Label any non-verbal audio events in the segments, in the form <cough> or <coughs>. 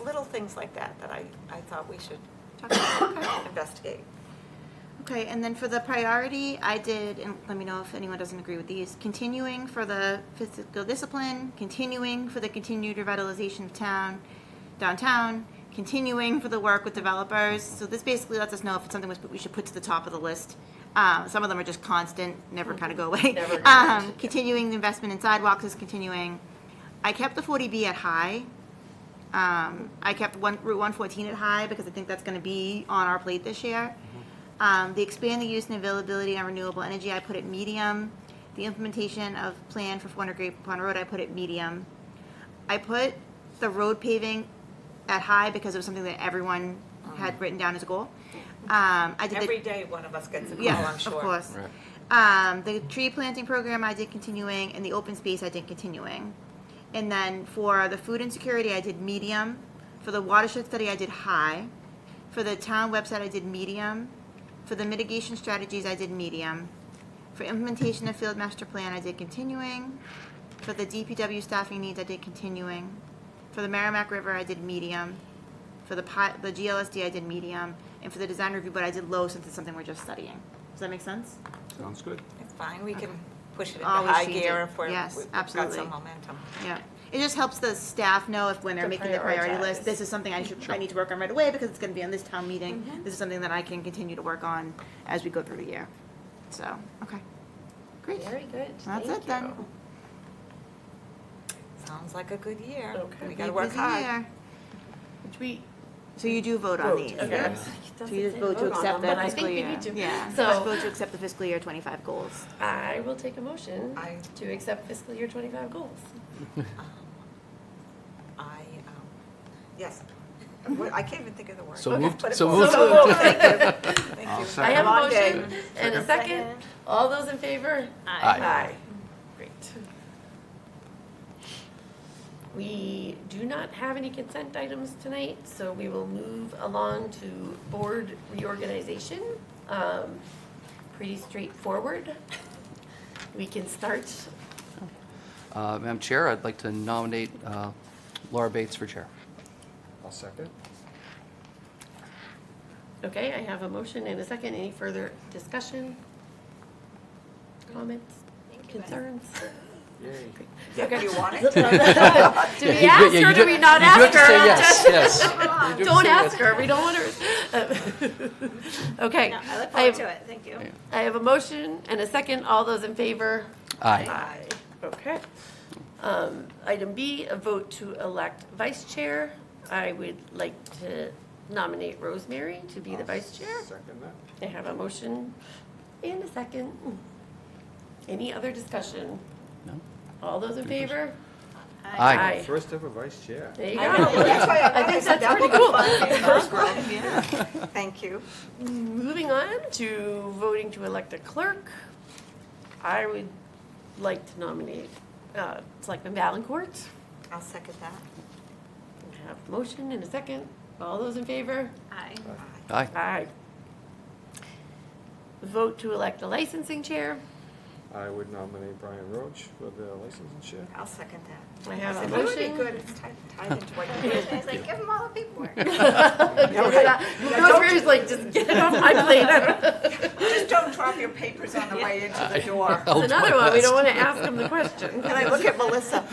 little things like that that I, I thought we should Talk about- okay. investigate. <coughs> Okay, and then for the priority, I did, and let me know if anyone doesn't agree with these, continuing for the fiscal discipline, continuing for the continued revitalization of town, downtown, continuing for the work with developers. So this basically lets us know if it's something we should put to the top of the list. Um, some of them are just constant, never kind of go <laughs> away. <laughs> Never go away. Um, continuing the investment in sidewalks is continuing. I kept the forty B at high. Um, I kept one, Route one fourteen at high because I think that's gonna be on our plate this year. Um, the expand the use and availability on renewable energy, I put it medium. The implementation of plan for Forner Grape Pond Road, I put it medium. I put the road paving at high because it was something that everyone had written down as a goal. Um, I did the. Every day, one of us gets a call, Yeah, I'm of sure. course. Um, the tree planting program I did continuing, and the open space I did continuing. And then for the food insecurity, I did medium. For the watershed study, I did high. For the town website, I did medium. For the mitigation strategies, I did medium. For implementation of field master plan, I did continuing. For the DPW staffing needs, I did continuing. For the Merrimack River, I did medium. For the pi- the GLSD, I did medium. And for the design review, but I did low since it's something we're just studying. Does that make sense? Sounds good. It's fine, we can push it into Always high change gear it. if we're, Yes, we've got absolutely. some momentum. Yeah, it just helps the staff know if when they're To making the priority prioritize. list, this is something I should, I need to work on right away because it's gonna be on this town meeting. This is something that I can continue to work on as we go through the year. So, okay, great. Very good. That's Thank it then. you. Sounds like a good year. Okay. We gotta Big work busy hard. year. Which we So you do vote on these? Okay. yeah? So you just vote to accept the that. I think fiscal we year? need to. Yeah, just So vote to accept the fiscal year twenty-five goals. I will take a motion I, to accept fiscal year twenty-five goals. um, I, um, yes, What- I can't even think of the word. So Okay, moved, put it so forward. moved. So moved. Thank you. I'll Thank you. second. I have a Long motion day. and a second. All those in favor? Aye. Great. We do not have any consent items tonight, so we will move along to board reorganization. Um, Pretty straightforward. We can start. Uh, Madam Chair, I'd like to nominate uh, Laura Bates for chair. I'll second. Okay, I have a motion and a second. Any further discussion? Comments? Concerns? If Okay. you want it. Do we ask Yeah, you her, do do- we you not do ask have to say her? yes, yes. You do have to <laughs> Don't say ask yes. her, we don't want her. <laughs> Okay. No, I look I forward have- to it, thank <laughs> you. I have a motion and a second. All those in favor? Aye. Okay. Um, Item B, a vote to elect vice chair. I would like to nominate Rosemary to be the vice chair. Second that. I have a motion and a second. Any other discussion? No? All those in favor? Aye. First ever vice chair. There you I know, go. that's why I I think said that that's would pretty be cool. fun in first world. <laughs> Thank you. <laughs> Moving on to voting to elect a clerk, I would like to nominate uh, Selectman Valencourt. I'll second that. I Have a motion and a second. All those in favor? Aye. Aye. Aye. Vote to elect a licensing chair. I would nominate Brian Roach for the licensing chair. I'll second that. I have a It would be motion. good, it's tied tied into what you did. I <laughs> was like, give them all the paperwork. <laughs> Rosemary's like, just get it off my plate. <laughs> I don't- Just don't drop your papers on the way into the door. I'll do It's another Oh, my one, we best. don't want to ask them the question. And Oh, I look at Melissa,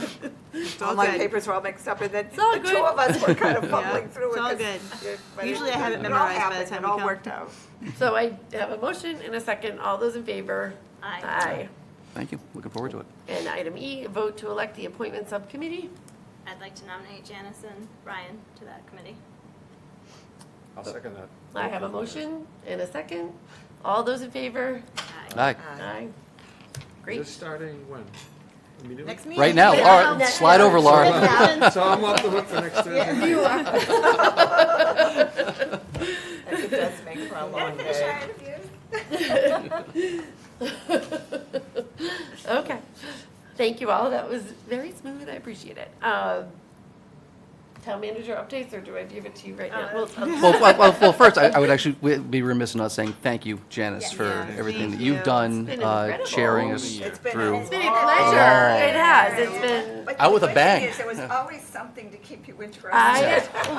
all all my good. papers were all mixed up, and then all the two good. of us were kind of fumbling <laughs> Yeah, through it's it. all 'cause good. you're- but Usually I have it all memorized by the happened, time It we all come. worked out. So I have a motion and a second. All those in favor? Aye. Aye. Thank you. Looking forward to it. And item E, vote to elect the appointment subcommittee. I'd like to nominate Janice and Ryan to that committee. I'll second that. Oh. I have a motion and a second. All those in favor? Aye. Aye. Aye. This Great. starting when? Immediately? Next meeting. Right now, Yeah. all Yeah. right, slide over, Laura. <laughs> So I'm off the hook for <laughs> next Thursday. It does make for a long Finish day. our interviews. Okay. Thank you all. That was very smooth. I appreciate it. Um, Town manager updates, or do I give it to you right now? Well, Uh, <laughs> I'll- <laughs> Well, well, well, well, first, I I would actually we'd be remiss in not saying thank you, Janice, for Yeah, everything thank that you. you've done, It's been uh, incredible. chairing Over us the year. It's been through. It's been a pleasure. It has. It's been, But Out with the a good thing bang. is, There was always something to keep you interested. I,